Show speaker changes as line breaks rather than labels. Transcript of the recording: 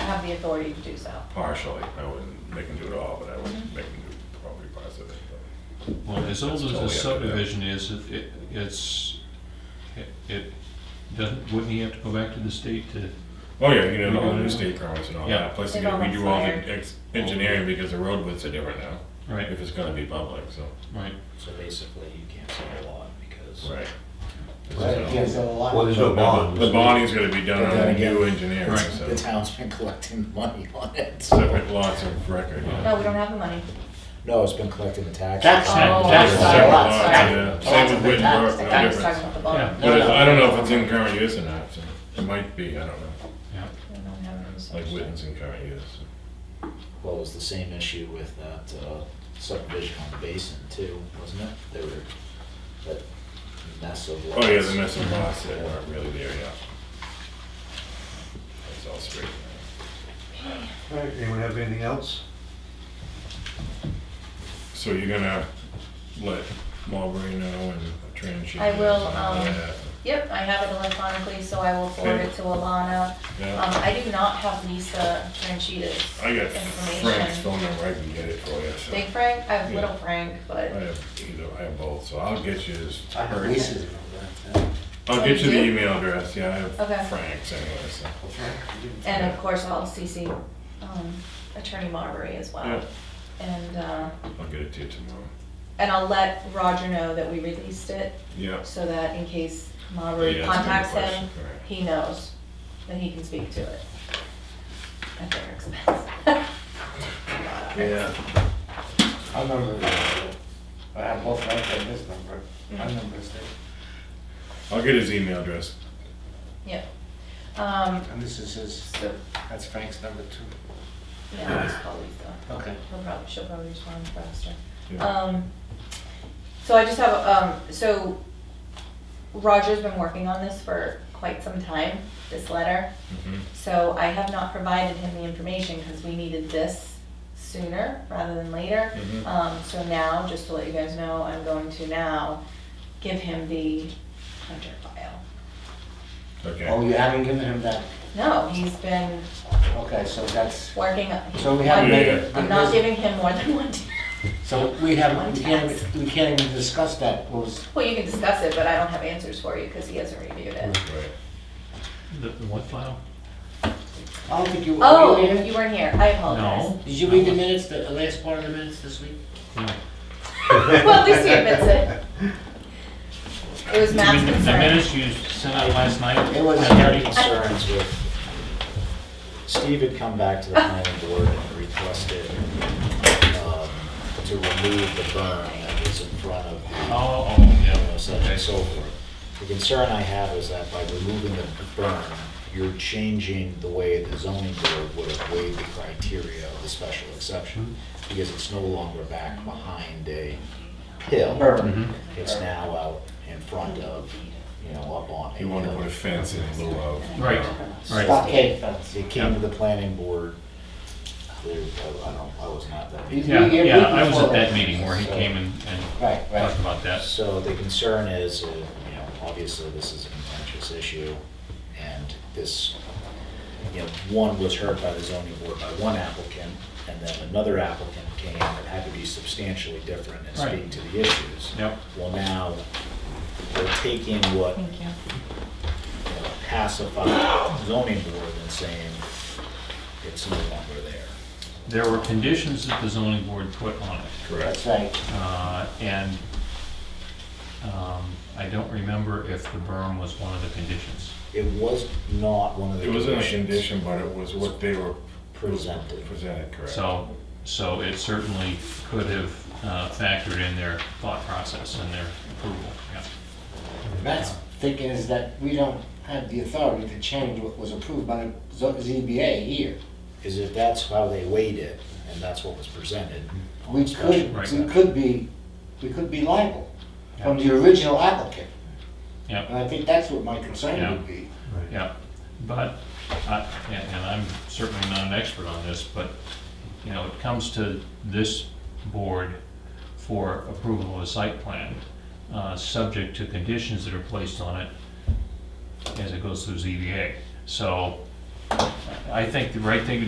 have the authority to do so.
partially, I wouldn't make them do it all, but I would
Mm-hmm.
make them do probably parts of it. but-
Well, as old as the
That's totally up to them.
subdivision is, it- it, it's, it- it, doesn't, wouldn't he have to go back to the state to?
Oh, yeah, you know, all the new state permits and all
Yeah.
that, plus
They've
you know,
all
we
been
do all
fired.
the ex- engineering because the road widths are different now,
Right,
if it's gonna be public, so.
right.
So basically, you can't sell a lot because.
Right.
Right, yeah, so a lot.
Well, there's no bond.
The bonding's gonna be done
But
on
then
the
again-
new engineering,
Right.
The
so
town's been collecting the money on it. so-
separate lots of record.
No, we don't have the money.
No, it's been collecting the taxes.
Tax-
Oh,
tax-
Separate
sorry.
lots,
Sorry.
yeah. Same with
I thought
Wittenberg, no
you were talking
difference.
about the
Yeah.
bond.
But if- I don't know if it's in current use or not, so it might be, I don't know,
Yeah.
We don't have it in the
like
section.
Witten's in current use.
Well, it was the same issue with that uh, subdivision on the basin too, wasn't it? They were, that mess of lots.
Oh, yeah, the missing lots that weren't really there yet. That's all straight.
All right, anyone have anything else?
So you're gonna let Marbury know and Transhy.
I will,
and all
um,
that,
Yep, I have it electronically, so I will forward it
Okay.
to Alana. Um,
Yeah,
I do not have Lisa Franchida's
I got Frank's
information.
phone number, I can get it for you, so.
Big Frank, I have
Yeah.
Little Frank,
I
but
have either, I have both, so I'll get you his,
I have
or-
Lisa's number, that's it.
I'll get you
Oh,
the
you do?
email address, yeah, I
Okay.
have Frank's anyway, so.
and of course I'll CC um, Attorney Marbury as well.
Yeah.
And uh,
I'll get it to you tomorrow.
and I'll let Roger know that we released it
Yeah.
so that in case Marbury
Yeah, that's a good
contacts him,
question, right.
he knows that he can speak to it at their expense.
Yeah.
I remember, that. I have both my and this number, my number is there,
I'll get his email address.
Yep. Um,
and this is his,
so,
that's Frank's number too.
yeah, it's probably the,
Okay.
he'll probably, she'll probably respond faster.
Yeah.
Um, so I just have, um, so Roger's been working on this for quite some time, this letter.
Mhm.
So I have not provided him the information because we needed this sooner rather than later.
Mhm.
Mm-hmm.
Um, so now, just to let you guys know, I'm going to now give him the Hunter file.
Oh,
Okay.
you haven't given him that,
No, he's been
okay, so that's,
working.
so we haven't made it.
I'm not giving him more than one. day.
So we haven't, we can't, we can't even discuss that, what was,
Well, you can discuss it, but I don't have answers for you because he hasn't reviewed it.
Right.
The, the what file?
I don't think you, were
Oh,
you here?
you weren't here. I apologize.
No.
Did you read the minutes, the last part of the minutes this week?
No.
Well, at least he admits it. It was Matt's
The
concern.
minutes you sent out last night?
It was
I had concerns with, Steve had come back to the planning board and requested um, to remove the burn that was in front of the
Oh, oh,
you
yeah.
know, such and so forth. The concern I have is that by removing the burn, you're changing the way the zoning board would have weighed the criteria of the special exception, because it's no longer back behind a hill.
Mm-hmm.
Burn.
It's now out in front of, you know, up on a
You want to put a
hill.
fence in lieu of. uh,
Right, right.
Stockade fence.
It came to the planning board, there, I don't, I was not that.
You-
Yeah,
you-
yeah, I was at that
before-
meeting where he came and, and
Right, right.
talked about that.
So the concern is, uh, you know, obviously this is a contentious issue, and this, you know, one was heard by the zoning board by one applicant, and then another applicant came that had to be substantially different in speaking
Right.
to the issues.
Yep.
Well, now, they're taking what you know,
Thank you.
pacified the zoning board and saying, it's no longer there.
There were conditions that the zoning board put on it.
Correct.
That's right.
Uh, And um, I don't remember if the berm was one of the conditions.
It was not one of the
It wasn't a
conditions.
condition, but it was what they were.
Presented.
Presented, correct.
So, so it certainly could have uh, factored in their thought process and their approval, yeah.
That's thinking is that we don't have the authority to change what was approved by the zo- ZBA here.
is if that's how they weighed it, and that's what was presented.
We could,
Right.
we could be, we could be liable from the original applicant.
Yeah,
And I think that's what my concern would be.
yeah. But, I- and and I'm certainly not an expert on this, but, you know, it comes to this board for approval of a site plan, uh, subject to conditions that are placed on it as it goes through ZBA. So I think the right thing to